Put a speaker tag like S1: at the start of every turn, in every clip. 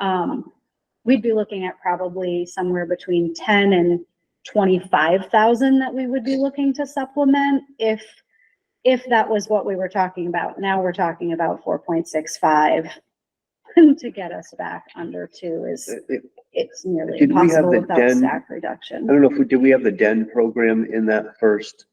S1: um, we'd be looking at probably somewhere between ten and twenty-five thousand that we would be looking to supplement if, if that was what we were talking about. Now we're talking about four point six five to get us back under two is,
S2: I
S1: it's nearly
S2: Did we have
S1: impossible
S2: the
S1: without
S2: den-
S1: staff reduction.
S2: don't know if we, did we have the den program in that first?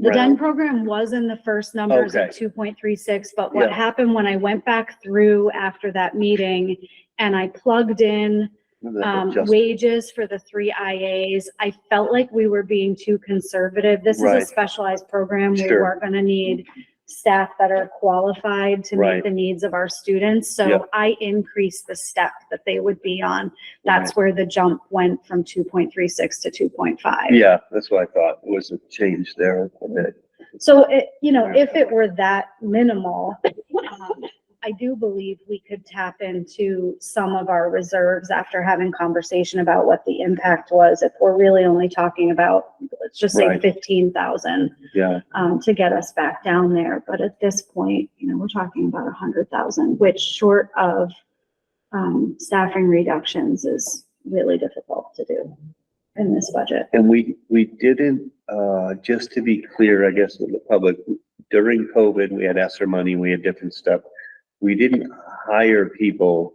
S1: The den
S2: round?
S1: program was in the first numbers at
S2: Okay.
S1: two point three six, but what
S2: Yeah.
S1: happened when I went back through after that meeting and I plugged in
S2: That
S1: um,
S2: adjust-
S1: wages for the three IAs. I felt like we were being too conservative. This is a
S2: Right.
S1: specialized program. We
S2: Sure.
S1: are gonna need staff that are qualified to meet
S2: Right.
S1: the needs of our students. So
S2: Yep.
S1: I increased the step that they would be on. That's where the jump went from two point three six to two point five.
S2: Yeah, that's what I thought, was a change there a bit.
S1: So it, you know,
S2: Yeah.
S1: if it were that minimal, um, I do believe we could tap into some of our reserves after having conversation about what the impact was. If we're really only talking about, let's just say
S2: Right.
S1: fifteen thousand,
S2: Yeah,
S1: um, to get us back down there. But at this point, you know, we're talking about a hundred thousand, which short of, um, staffing reductions is really difficult to do in this budget.
S2: and we, we didn't, uh, just to be clear, I guess, with the public, during COVID, we had ESSER money, we had different stuff. We didn't hire people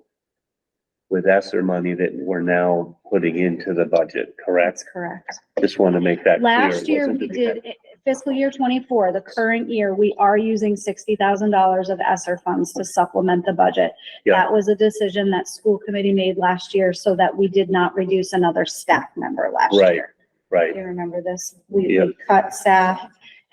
S2: with ESSER money that we're now putting into the budget, correct?
S1: That's correct.
S2: Just want to make that clear.
S1: Last year, we did eh, fiscal year twenty-four, the current year, we are using sixty thousand dollars of ESSER funds to supplement the budget.
S2: Yeah.
S1: That was a decision that school committee made last year so that we did not reduce another staff member last
S2: Right.
S1: year.
S2: Right,
S1: You remember this? We,
S2: Yeah.
S1: we cut staff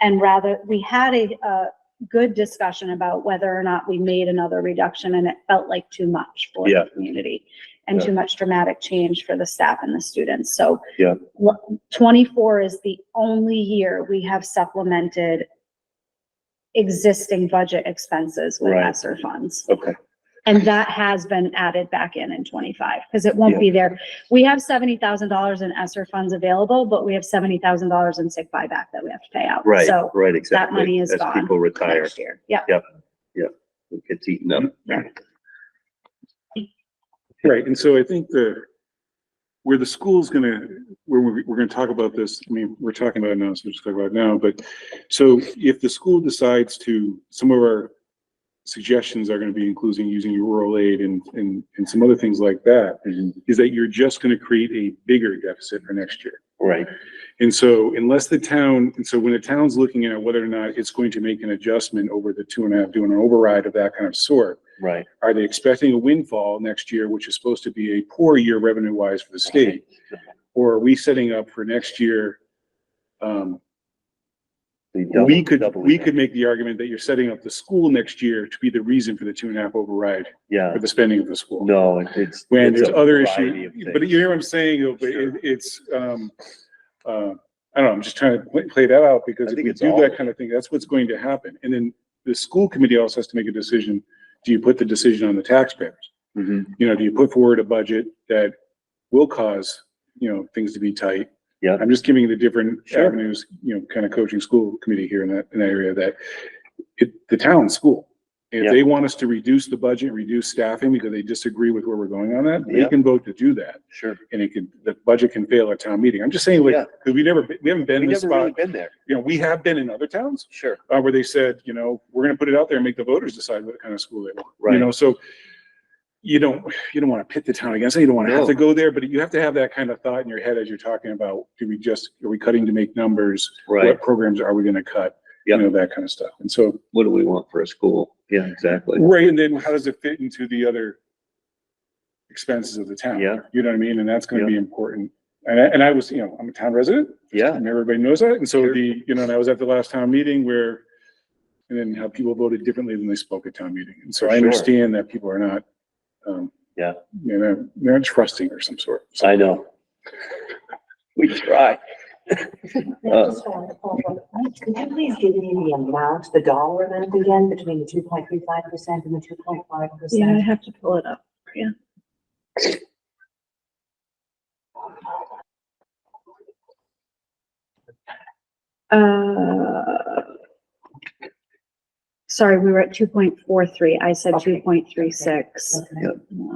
S1: and rather, we had a, a good discussion about whether or not we made another reduction and it felt like too much for
S2: Yeah.
S1: the community and
S2: Yeah.
S1: too much dramatic change for the staff and the students. So
S2: Yeah.
S1: lo- twenty-four is the only year we have supplemented existing budget expenses with
S2: Right.
S1: ESSER funds.
S2: okay,
S1: And that has been added back in in twenty-five, because it won't
S2: Yeah.
S1: be there. We have seventy thousand dollars in ESSER funds available, but we have seventy thousand dollars in sick buyback that we have to pay out.
S2: right,
S1: So
S2: right, exactly.
S1: money is
S2: As
S1: gone
S2: people retire,
S1: next year, yeah.
S2: it gets eaten up.
S3: Right, and so I think the, where the school's gonna, where we're, we're gonna talk about this, I mean, we're talking about it now, so we'll just talk about it now, but so if the school decides to, some of our suggestions are gonna be including using your rural aid and, and, and some other things like that, is that you're just gonna create a bigger deficit for next year.
S2: Right,
S3: And so unless the town, and so when the town's looking at whether or not it's going to make an adjustment over the two and a half, doing an override of that kind of sort,
S2: right,
S3: are they expecting a windfall next year, which is supposed to be a poor year revenue wise for the state? Or are we setting up for next year? Um,
S2: They double-
S3: we could,
S2: double
S3: we
S2: it.
S3: could make the argument that you're setting up the school next year to be the reason for the two and a half override
S2: Yeah,
S3: for the spending of the school.
S2: no, it- it's.
S3: When
S2: it's
S3: there's
S2: a
S3: other
S2: variety
S3: issues,
S2: of things.
S3: but you hear what I'm saying, though, but it,
S2: Sure.
S3: it's, um, uh, I don't know, I'm just trying to play, play that out
S2: I
S3: because if
S2: think
S3: we
S2: it's
S3: do
S2: all of
S3: that kind of thing, that's what's going to happen. And then the school committee also has to make a decision. Do you put the decision on the taxpayers?
S2: Mhm,
S3: you know, do you put forward a budget that will cause, you know, things to be tight?
S2: Yeah.
S3: I'm just giving you the different
S2: Sure.
S3: avenues, you know, kind of coaching school committee here in that, in that area that it, the town school. If
S2: Yeah.
S3: they want us to reduce the budget, reduce staffing because they disagree with where we're going on that, they
S2: Yeah.
S3: can vote to do that.
S2: Sure.
S3: And it could, the budget can fail at town meeting. I'm just saying, like,
S2: Yeah.
S3: because we never, we haven't been
S2: We
S3: in this
S2: never really
S3: spot.
S2: been there,
S3: You know, we have been in other towns
S2: sure,
S3: uh, where they said, you know, we're gonna put it out there and make the voters decide what kind of school they want,
S2: Right.
S3: you know, so. You don't, you don't wanna pit the town against it, you don't wanna have
S2: No.
S3: to go there, but you have to have that kind of thought in your head as you're talking about, do we just, are we cutting to make numbers?
S2: right,
S3: What programs are we gonna cut? You
S2: Yep.
S3: know, that kind of stuff, and so,
S2: what do we want for a school? Yeah, exactly,
S3: right, and then how does it fit into the other? Expenses of the town?
S2: Yeah.
S3: You know what I mean, and that's gonna
S2: Yeah.
S3: be important, and I, and I was, you know, I'm a town resident,
S2: yeah,
S3: and everybody knows that. And so
S2: Sure.
S3: the, you know, and I was at the last town meeting where, and then how people voted differently than they spoke at town meeting. And so
S2: For
S3: I
S2: sure.
S3: understand that people are not, um,
S2: Yeah.
S3: You know, they're not trusting or some sort. So-
S2: I know. We try,
S4: Yeah, just wanted to follow up. Could you please give me the amount, the dollar amount again, between the two point three five percent and the two point five
S1: Yeah, I
S4: percent?
S1: have to pull it up. Uh, sorry, we were at two point four three. I said two
S4: Okay.
S1: point three six.
S2: Yep.